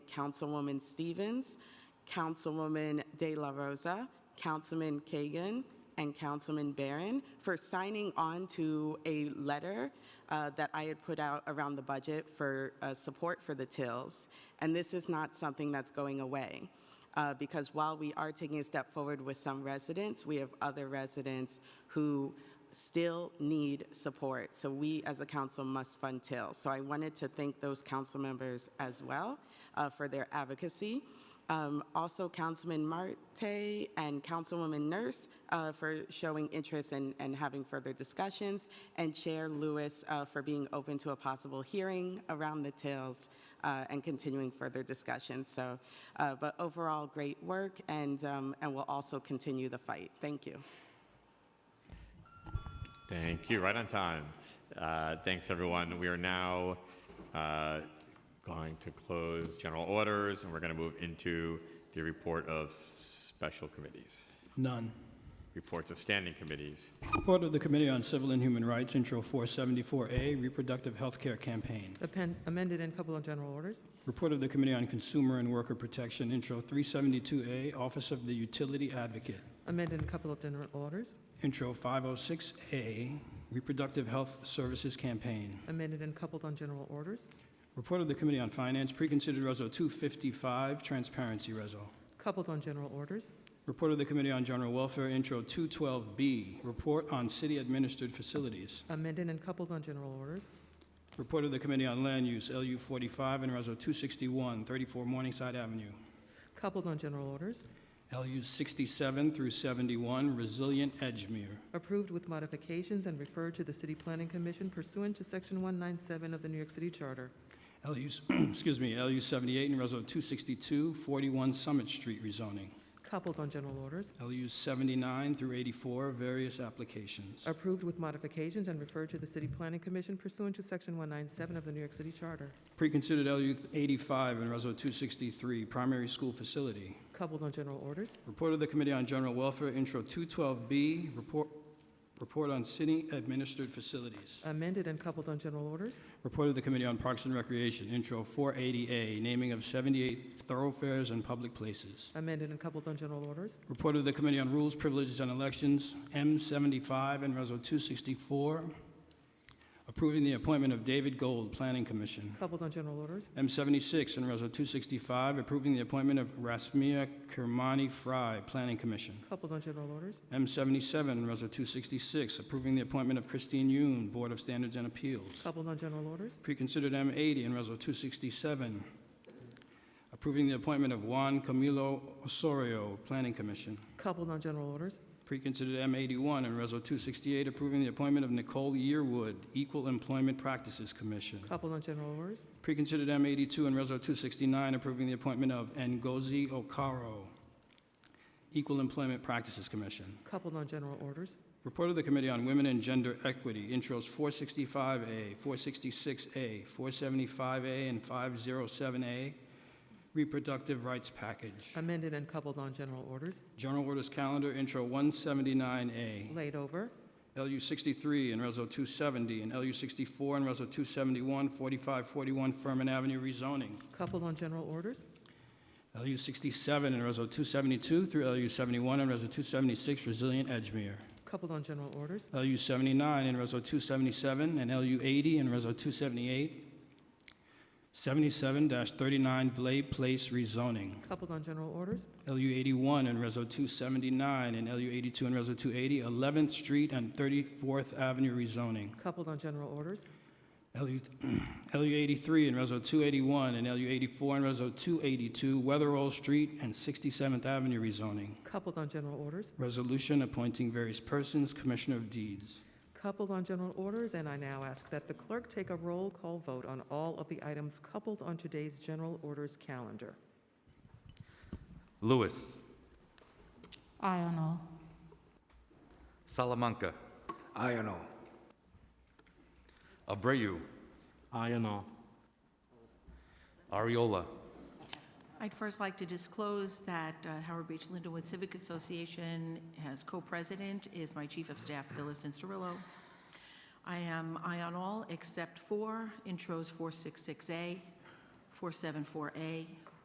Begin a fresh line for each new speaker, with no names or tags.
Councilwoman Stevens, Councilwoman De La Rosa, Councilman Kagan, and Councilman Barron for signing on to a letter uh, that I had put out around the budget for uh, support for the TILs. And this is not something that's going away. uh, Because while we are taking a step forward with some residents, we have other residents who still need support. So we, as a council, must fund TIL. So I wanted to thank those council members as well uh, for their advocacy. Um, Also, Councilman Marte and Councilwoman Nurse uh, for showing interest and and having further discussions, and Chair Lewis uh, for being open to a possible hearing around the TILs uh, and continuing further discussions. So, uh, but overall, great work, and um, and we'll also continue the fight. Thank you.
Thank you. Right on time. Uh, Thanks, everyone. We are now uh, going to close general orders, and we're going to move into the report of special committees,
None.
reports of standing committees.
Report of the Committee on Civil and Human Rights, Intro 474A, Reproductive Health Care Campaign.
Append- amended and coupled on general orders.
Report of the Committee on Consumer and Worker Protection, Intro 372A, Office of the Utility Advocate.
Amended and coupled on general orders.
Intro 506A, Reproductive Health Services Campaign.
Amended and coupled on general orders.
Report of the Committee on Finance, Preconsidered Reso 255, Transparency Reso.
Coupled on general orders.
Report of the Committee on General Welfare, Intro 212B, Report on City Administered Facilities.
Amended and coupled on general orders.
Report of the Committee on Land Use, LU 45 and Reso 261, 34 Morningside Avenue.
Coupled on general orders.
LU 67 through 71, Resilient Edgemere.
Approved with modifications and referred to the City Planning Commission pursuant to Section 197 of the New York City Charter.
LU, excuse me, LU 78 and Reso 262, 41 Summit Street rezoning.
Coupled on general orders.
LU 79 through 84, various applications.
Approved with modifications and referred to the City Planning Commission pursuant to Section 197 of the New York City Charter.
Preconsidered LU 85 and Reso 263, Primary School Facility.
Coupled on general orders.
Report of the Committee on General Welfare, Intro 212B, Report, Report on City Administered Facilities.
Amended and coupled on general orders.
Report of the Committee on Parks and Recreation, Intro 480A, naming of 78 thoroughfares and public places.
Amended and coupled on general orders.
Report of the Committee on Rules, Privileges, and Elections, M75 and Reso 264, approving the appointment of David Gold, Planning Commission.
Coupled on general orders.
M76 and Reso 265, approving the appointment of Rasmia Kermani Fry, Planning Commission.
Coupled on general orders.
M77 and Reso 266, approving the appointment of Christine Yoon, Board of Standards and Appeals.
Coupled on general orders.
Preconsidered M80 and Reso 267, approving the appointment of Juan Camilo Osorio, Planning Commission.
Coupled on general orders.
Preconsidered M81 and Reso 268, approving the appointment of Nicole Yearwood, Equal Employment Practices Commission.
Coupled on general orders.
Preconsidered M82 and Reso 269, approving the appointment of Ngozi Okaro, Equal Employment Practices Commission.
Coupled on general orders.
Report of the Committee on Women and Gender Equity, intros 465A, 466A, 475A, and 507A, Reproductive Rights Package.
Amended and coupled on general orders.
General Orders Calendar, intro 179A,
Laid over.
LU 63 and Reso 270, and LU 64 and Reso 271, 4541 Furman Avenue rezoning.
Coupled on general orders.
LU 67 and Reso 272 through LU 71 and Reso 276 Resilient Edgemere.
Coupled on general orders.
LU 79 and Reso 277, and LU 80 and Reso 278, 77-39 Vlay Place rezoning,
Coupled on general orders.
LU 81 and Reso 279, and LU 82 and Reso 280, 11th Street and 34th Avenue rezoning,
Coupled on general orders.
LU LU 83 and Reso 281, and LU 84 and Reso 282, Weatherall Street and 67th Avenue rezoning.
Coupled on general orders.
Resolution appointing various persons, Commissioner of Deeds.
Coupled on general orders, and I now ask that the clerk take a roll call vote on all of the items coupled on today's general orders calendar.
Lewis,
I don't know.
Salamanca,
I don't know.
Abreu,
I don't know.
Ariola,
I'd first like to disclose that uh, Howard Beach Lindenwood Civic Association has co-president is my chief of staff, Phyllis Insterillo. I am aye on all except for intros 466A, 474A,